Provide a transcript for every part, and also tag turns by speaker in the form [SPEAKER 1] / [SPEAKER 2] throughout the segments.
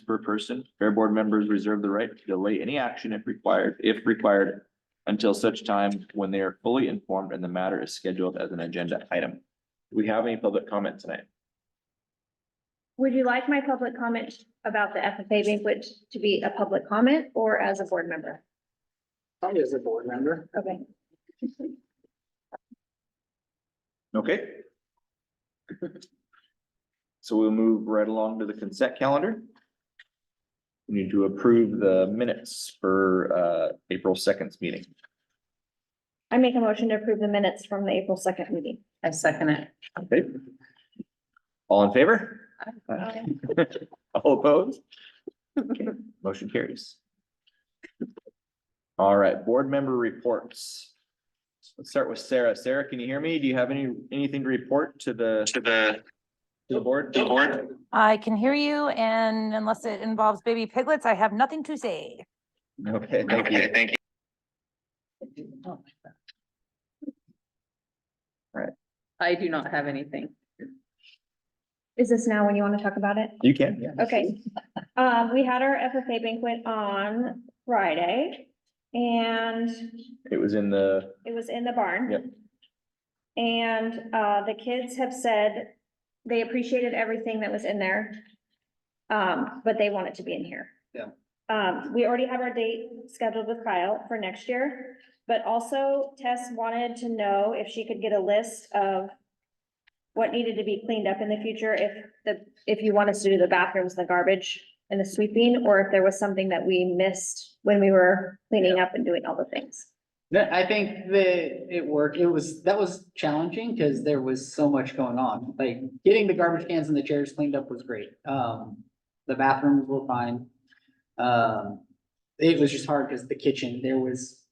[SPEAKER 1] per person. Fair board members reserve the right to delay any action if required, if required. Until such time when they are fully informed and the matter is scheduled as an agenda item. Do we have any public comment tonight?
[SPEAKER 2] Would you like my public comment about the FFA banquet to be a public comment or as a board member?
[SPEAKER 3] Probably as a board member.
[SPEAKER 2] Okay.
[SPEAKER 1] Okay. So we'll move right along to the consent calendar. We need to approve the minutes for uh April second meeting.
[SPEAKER 2] I make a motion to approve the minutes from the April second meeting.
[SPEAKER 4] I second it.
[SPEAKER 1] Okay. All in favor? All opposed? Okay, Motion carries. All right, board member reports. Let's start with Sarah. Sarah, can you hear me? Do you have any, anything to report to the? To the. To the board? To the board.
[SPEAKER 5] I can hear you and unless it involves baby piglets, I have nothing to say.
[SPEAKER 1] Okay, thank you. Right.
[SPEAKER 4] I do not have anything.
[SPEAKER 2] Is this now when you want to talk about it?
[SPEAKER 1] You can, yeah.
[SPEAKER 2] Okay, um, we had our FFA banquet on Friday and
[SPEAKER 1] It was in the,
[SPEAKER 2] it was in the barn.
[SPEAKER 1] Yep.
[SPEAKER 2] And, uh, the kids have said they appreciated everything that was in there. Um, but they want it to be in here.
[SPEAKER 3] Yeah.
[SPEAKER 2] Um, we already have our date scheduled with Kyle for next year, but also Tess wanted to know if she could get a list of what needed to be cleaned up in the future, if the, if you want us to do the bathrooms, the garbage and the sweeping, or if there was something that we missed when we were cleaning up and doing all the things.
[SPEAKER 3] That, I think that it worked. It was, that was challenging because there was so much going on. Like getting the garbage cans and the chairs cleaned up was great. Um, the bathrooms were fine. Um, it was just hard because the kitchen, there was,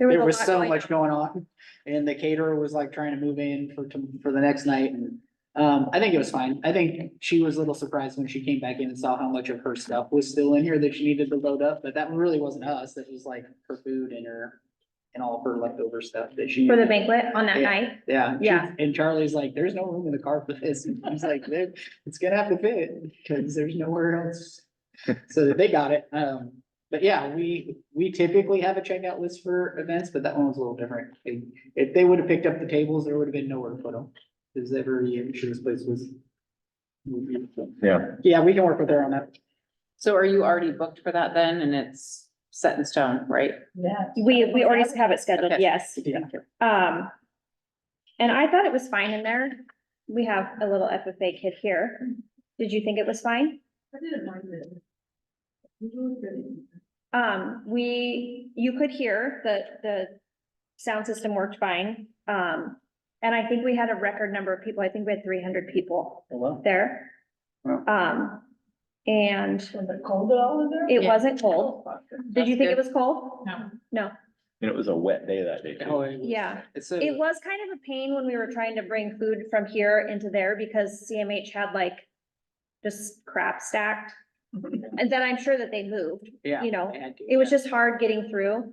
[SPEAKER 2] a
[SPEAKER 3] there was
[SPEAKER 2] lot
[SPEAKER 3] so
[SPEAKER 2] going
[SPEAKER 3] much
[SPEAKER 2] on.
[SPEAKER 3] going on. And the caterer was like trying to move in for, tom- for the next night and, um, I think it was fine. I think she was a little surprised when she came back in and saw how much of her stuff was still in here that she needed to load up, but that really wasn't us. That was like her food and her, and all of her leftover stuff that she.
[SPEAKER 2] For the banquet on that
[SPEAKER 3] Yeah.
[SPEAKER 2] night,
[SPEAKER 3] Yeah. she-
[SPEAKER 2] Yeah.
[SPEAKER 3] And Charlie's like, there's no room in the car for this. And I was like, "There- it's gonna have to fit because there's nowhere else. So that they got it. Um, but yeah, we, we typically have a checkout list for events, but that one was a little different. If- If they would have picked up the tables, there would have been nowhere to put them. Cause every year this place was.
[SPEAKER 1] yeah,
[SPEAKER 3] Yeah, we can work with her on that.
[SPEAKER 4] So are you already booked for that then? And it's set in stone, right?
[SPEAKER 2] we, we already have it scheduled,
[SPEAKER 4] Okay.
[SPEAKER 2] yes.
[SPEAKER 3] Yeah.
[SPEAKER 2] Um, and I thought it was fine in there. We have a little FFA kid here. Did you think it was fine?
[SPEAKER 6] I didn't mind it. It was good.
[SPEAKER 2] Um, we, you could hear the, the sound system worked fine. Um, and I think we had a record number of people. I think we had three hundred people
[SPEAKER 6] Oh,
[SPEAKER 3] Hello?
[SPEAKER 2] there.
[SPEAKER 3] Wow.
[SPEAKER 2] Um, and
[SPEAKER 6] Was it cold at all in there?
[SPEAKER 2] it
[SPEAKER 4] Yeah.
[SPEAKER 2] wasn't cold. Did you
[SPEAKER 4] That's
[SPEAKER 2] think it
[SPEAKER 4] good.
[SPEAKER 2] was cold?
[SPEAKER 6] No.
[SPEAKER 2] No.
[SPEAKER 1] and it was a wet day that day. too.
[SPEAKER 3] Oh, it was-
[SPEAKER 2] Yeah.
[SPEAKER 3] It's a,
[SPEAKER 2] It was kind of a pain when we were trying to bring food from here into there because CMH had like just crap stacked. And then I'm sure that they moved.
[SPEAKER 3] yeah.
[SPEAKER 2] you know,
[SPEAKER 3] I had to,
[SPEAKER 2] It was
[SPEAKER 3] yeah.
[SPEAKER 2] just hard getting through.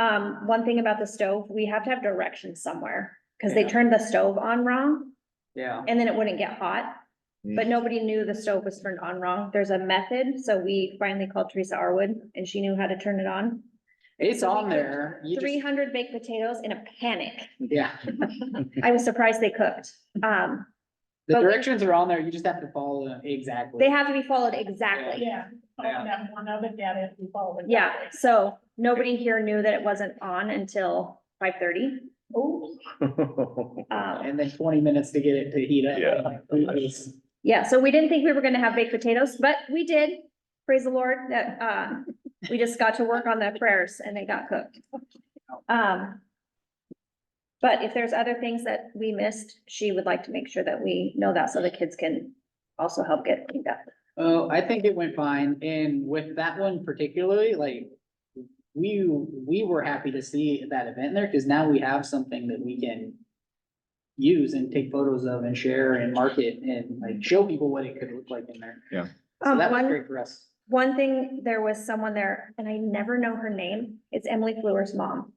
[SPEAKER 2] Um, one thing about the stove, we have to have directions somewhere because they
[SPEAKER 3] Yeah.
[SPEAKER 2] turned the stove on wrong
[SPEAKER 3] Yeah.
[SPEAKER 2] and then it wouldn't get hot.
[SPEAKER 3] Mm.
[SPEAKER 2] But nobody knew the stove was turned on wrong. There's a method, so we finally called Teresa Arwood and she knew how to turn it on.
[SPEAKER 3] It's
[SPEAKER 2] So we
[SPEAKER 3] on
[SPEAKER 2] cooked
[SPEAKER 3] there. You just-
[SPEAKER 2] Three hundred baked potatoes in a panic.
[SPEAKER 3] Yeah.
[SPEAKER 2] I was surprised they cooked. Um,
[SPEAKER 3] The
[SPEAKER 2] But we-
[SPEAKER 3] directions are on there, you just have to follow them exactly.
[SPEAKER 2] they have to be followed exactly.
[SPEAKER 6] Yeah. Oh, and that one other dad had to follow it.
[SPEAKER 2] Yeah, so nobody here knew that it wasn't on until five thirty.
[SPEAKER 6] Oh,
[SPEAKER 2] Um,
[SPEAKER 3] And then twenty minutes to get it to heat up.
[SPEAKER 1] Yeah.
[SPEAKER 3] It was-
[SPEAKER 2] yeah, so we didn't think we were gonna have baked potatoes, but we did. Praise the Lord that, uh, we just got to work on the prayers and they got cooked. Um, but if there's other things that we missed, she would like to make sure that we know that so the kids can also help get cleaned up.
[SPEAKER 3] Oh, I think it went fine, and with that one particularly, like. We, we were happy to see that event there, cause now we have something that we can. Use and take photos of and share and market and like show people what it could look like in there.
[SPEAKER 1] Yeah.
[SPEAKER 3] So
[SPEAKER 2] Um,
[SPEAKER 3] that was
[SPEAKER 2] one-
[SPEAKER 3] great for us.
[SPEAKER 2] One thing, there was someone there, and I never know her name, it's Emily Fleur's mom,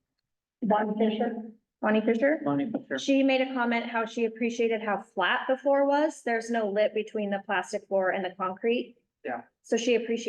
[SPEAKER 6] Von Fisher?
[SPEAKER 2] Bonnie Fisher.
[SPEAKER 3] Bonnie, sure.
[SPEAKER 2] She made a comment how she appreciated how flat the floor was. There's no lip between the plastic floor and the concrete.
[SPEAKER 3] Yeah.
[SPEAKER 2] So she appreciated